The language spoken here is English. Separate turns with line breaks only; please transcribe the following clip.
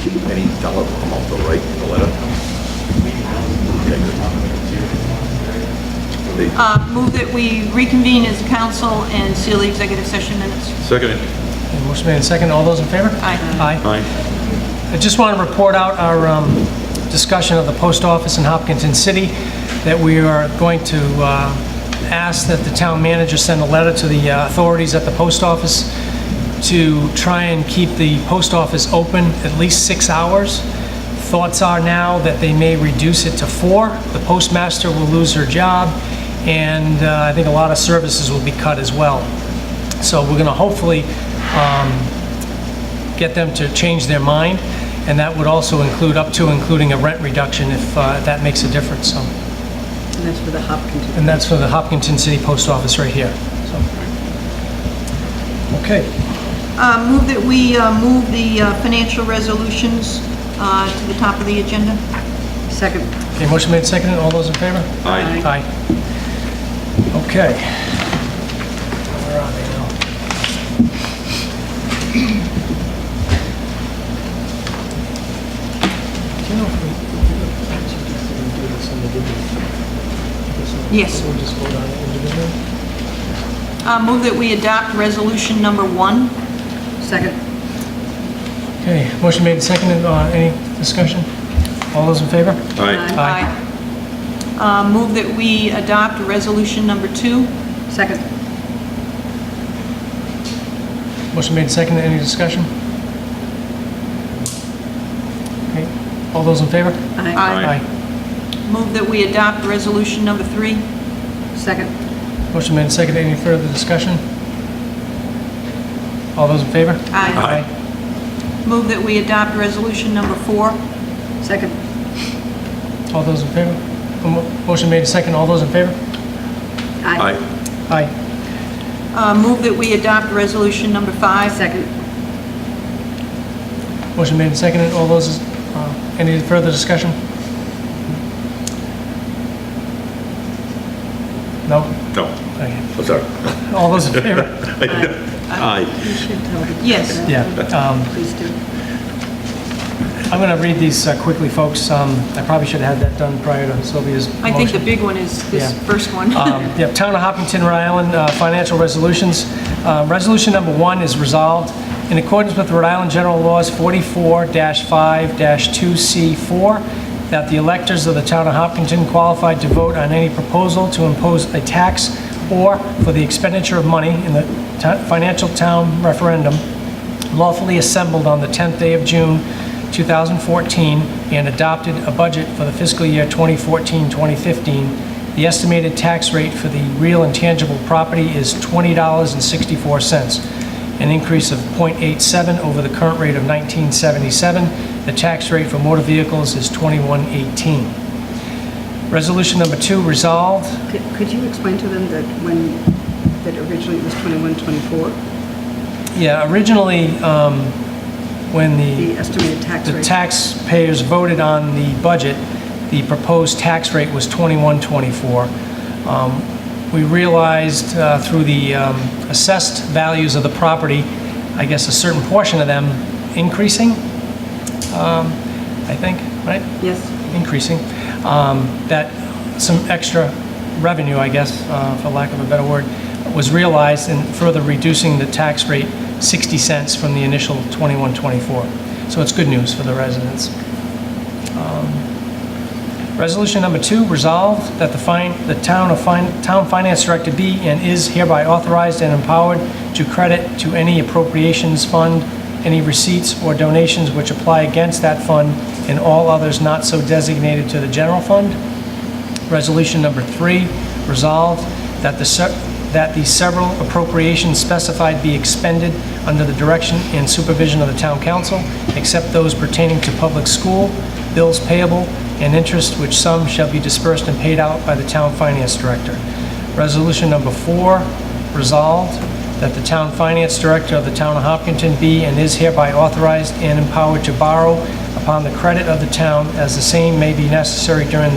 tell them I'm off the right in the letter? Okay, good. They-
Uh, Move that we reconvene as council and seal the executive session minutes.
Second,
Okay, Motion made and second. All those in favor?
Aye.
Aye.
aye.
I just want to report out our um, discussion of the post office in Hopkinton City, that we are going to uh, ask that the town manager send a letter to the uh, authorities at the post office to try and keep the post office open at least six hours. Thoughts are now that they may reduce it to four. The postmaster will lose her job, and uh, I think a lot of services will be cut as well. So we're going to hopefully get them to change their mind, and that would also include, up to including a rent reduction if uh, that makes a difference, so.
And that's for the Hopkins.
And that's for the Hopkinton City Post Office right here, so. Okay,
Uh, Move that we uh, move the uh, financial resolutions uh, to the top of the agenda.
Second.
okay, motion made, seconded, all those in favor?
Aye.
Aye. Okay. Where are they now? Do you know if we, I suggested we do this individually?
Yes.
We'll just vote on it individually?
Uh, Move that we adopt resolution number one.
Second.
Okay, motion made and seconded. Uh, Any discussion? All those in favor?
Aye.
Aye.
Uh, Move that we adopt resolution number two.
Second.
Motion made and seconded. Any discussion? Okay, all those in favor?
Aye.
Aye.
Move that we adopt resolution number three.
Second.
Motion made and seconded. Any further discussion? All those in favor?
Aye. Move that we adopt resolution number four.
Second.
Aye. All those in favor? Mo- Motion made and seconded. All those in favor?
Aye.
Aye.
Uh, Move that we adopt resolution number five.
Second.
Motion made and seconded. All those, uh, any further discussion? No?
No,
Okay.
I'm sorry.
All those in favor?
Aye.
You should tell the...
Yes.
Yeah. um,
Please do.
I'm going to read these uh, quickly, folks. Um, I probably should have had that done prior to Sylvia's motion.
I think the big one is this
Yeah.
first one.
Um, Yep, Town of Hopkinton, Rhode Island, uh, financial resolutions. Uh, Resolution number one is resolved in accordance with Rhode Island General Laws 44-5-2C4 that the electors of the Town of Hopkinton qualified to vote on any proposal to impose a tax or for the expenditure of money in the ta- financial town referendum lawfully assembled on the 10th day of June 2014 and adopted a budget for the fiscal year 2014-2015, the estimated tax rate for the real and tangible property is $20.64, an increase of .87 over the current rate of 1977. The tax rate for motor vehicles is 2118. Resolution number two, resolved
Could- Could you explain to them that when, that originally it was 21, 24,
Yeah, originally, um, when
the estimated tax
the
rate?
taxpayers voted on the budget, the proposed tax rate was 2124. Um, We realized uh, through the um, assessed values of the property, I guess a certain portion of them increasing, um, I think, right?
Yes.
increasing, um, that some extra revenue, I guess, uh, for lack of a better word, was realized in further reducing the tax rate 60 cents from the initial 2124. So it's good news for the residents. Resolution number two, resolved that the fin- the town of fin- town finance director be and is hereby authorized and empowered to credit to any appropriations fund, any receipts or donations which apply against that fund and all others not so designated to the general fund. Resolution number three, resolved that the, se- that the several appropriations specified be expended under the direction and supervision of the town council, except those pertaining to public school, bills payable, and interest, which sum shall be dispersed and paid out by the town finance director. Resolution number four, resolved that the town finance director of the town of Hopkinton be and is hereby authorized and empowered to borrow upon the credit of the town as the same may be necessary during the